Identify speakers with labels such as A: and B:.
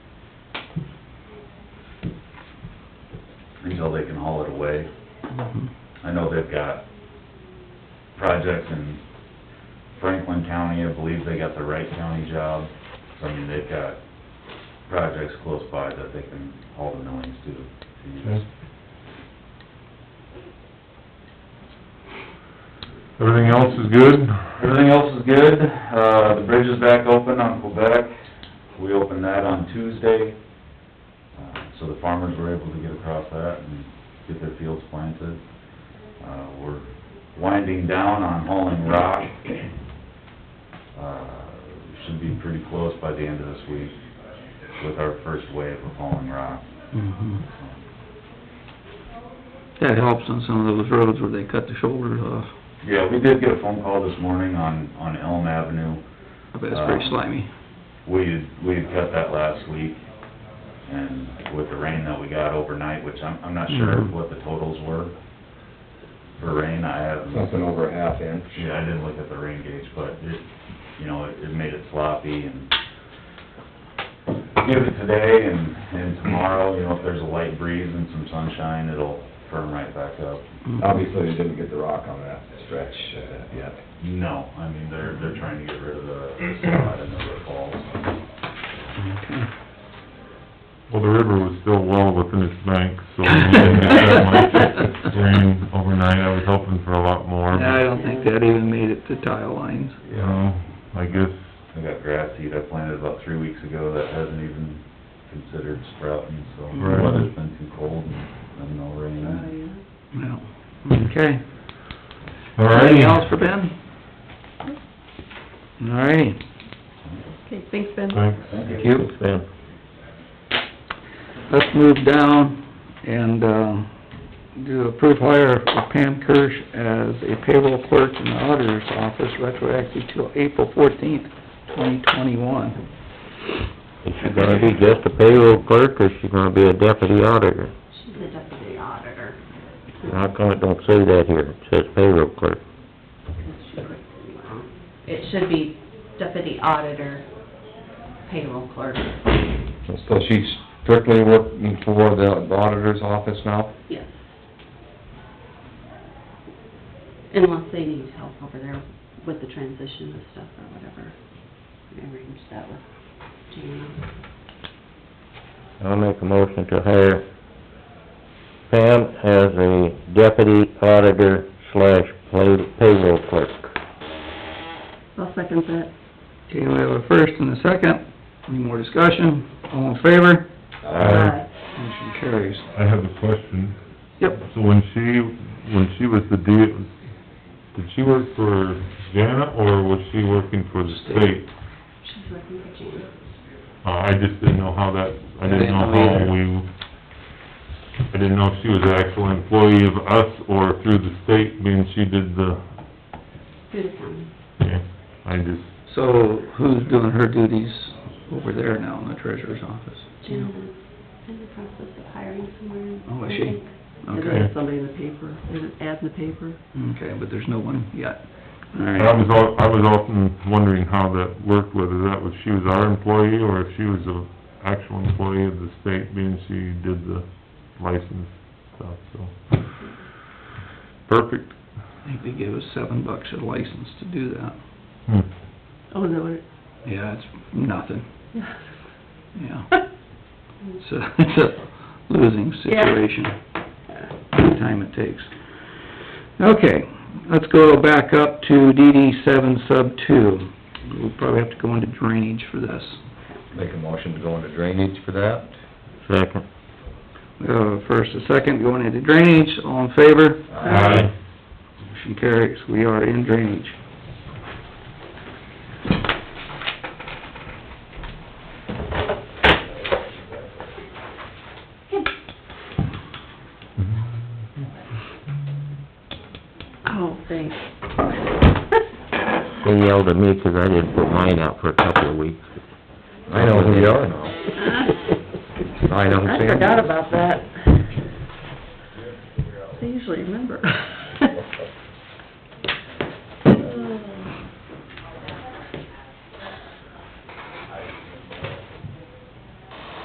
A: until they can haul it away. I know they've got projects in Franklin County, I believe they got the Wright County job. So, I mean, they've got projects close by that they can haul the millings to, to use.
B: Okay. Everything else is good?
A: Everything else is good. Uh, the bridge is back open on Quebec. We opened that on Tuesday. Uh, So the farmers were able to get across that and get their fields planted. Uh, we're winding down on hauling rock. Uh, should be pretty close by the end of this week with our first wave of hauling rock.
C: Mhm. That helps on some of those roads where they cut the shoulders off.
A: Yeah, we did get a phone call this morning on, on Elm Avenue.
C: I bet it's
B: Uh,
C: pretty
A: Um,
C: slimy.
A: We had, we had cut that last week, and with the rain that we got overnight, which I'm, I'm not sure
C: Mhm.
A: what the totals were for rain, I haven't,
D: Something over a half inch.
A: yeah, I didn't look at the rain gauge, but it, you know, it, it made it sloppy, and give it today and, and tomorrow, you know, if there's a light breeze and some sunshine, it'll firm right back up.
C: Mhm.
D: Obviously, they didn't get the rock on that stretch uh, yet.
A: No, I mean, they're, they're trying to get rid of the the slot and the falls.
C: Okay.
B: Well, the river was still well within its bank, so we didn't get that much rain overnight. I was hoping for a lot more.
C: Yeah, I don't think that even made it to tile lines.
B: You know, I guess,
A: I got grass seed I planted about three weeks ago that hasn't even considered sprouting, so the
B: Right.
A: weather's been too cold and, and no rain.
C: Well, okay.
B: Hmm. all right.
C: Anything else for Ben? All righty.
E: Okay, thanks, Ben.
B: Thanks.
A: Thank
C: you. Let's move down and, um, do approve hire of Pam Kirsch as a payroll clerk in the auditor's office retroactive to April fourteenth, twenty twenty-one.
F: Is she gonna be just a payroll clerk, or is she gonna be a deputy auditor?
G: She's the deputy auditor.
F: How
C: Uh-huh.
F: come it don't say that here? It says payroll clerk.
G: It should be deputy auditor, payroll clerk.
D: So she's strictly working for the the auditor's office now?
G: Yes. Unless they need help over there with the transition and stuff or whatever. I arranged that with Jana.
F: I'll make a motion to hire Pam as a deputy auditor slash pay- payroll clerk.
G: I'll second that.
C: Okay, we have a first and a second. Any more discussion? All in favor?
B: Aye.
C: Motion carries.
B: I have a question.
C: Yep.
B: So when she, when she was the D, did she work for Jana, or was she working for the state?
G: She's working for Jana.
B: Uh, I just didn't know how that, I didn't know
C: I didn't know
B: how
C: either.
B: we, I didn't know if she was an actual employee of us or through the state, being she did the,
G: Through the county.
B: yeah, I just,
C: So who's doing her duties over there now in the treasurer's office?
G: Jana's in the process of hiring someone.
C: Hmm. Oh, is she?
G: I think. And
C: Okay,
G: there's somebody in the paper, there's an ad in the paper.
C: okay, but there's no one yet. All
B: I
C: right,
B: was al- I was often wondering how that worked, whether that was, she was our employee, or if she was a actual employee of the state, being she did the license stuff, so. Perfect.
C: I think they gave us seven bucks a license to do that.
B: Hmm.
G: Oh, is that what it?
C: Yeah, it's nothing, yeah.
G: Yeah.
C: It's a, it's a losing situation, the time it takes. Okay, let's go back up to DD seven sub two. We'll probably have to go into drainage for this.
D: Make a motion to go into drainage for that?
F: Second.
C: We have a Uh, first, a second, going into drainage, all in favor?
B: Aye.
C: Motion carries, we are in drainage.
G: Oh, thanks.
F: They yelled at me 'cause I didn't put mine out for a couple of weeks.
D: I know who you are now. I know,
G: I
D: Sam.
G: forgot about that. I usually remember.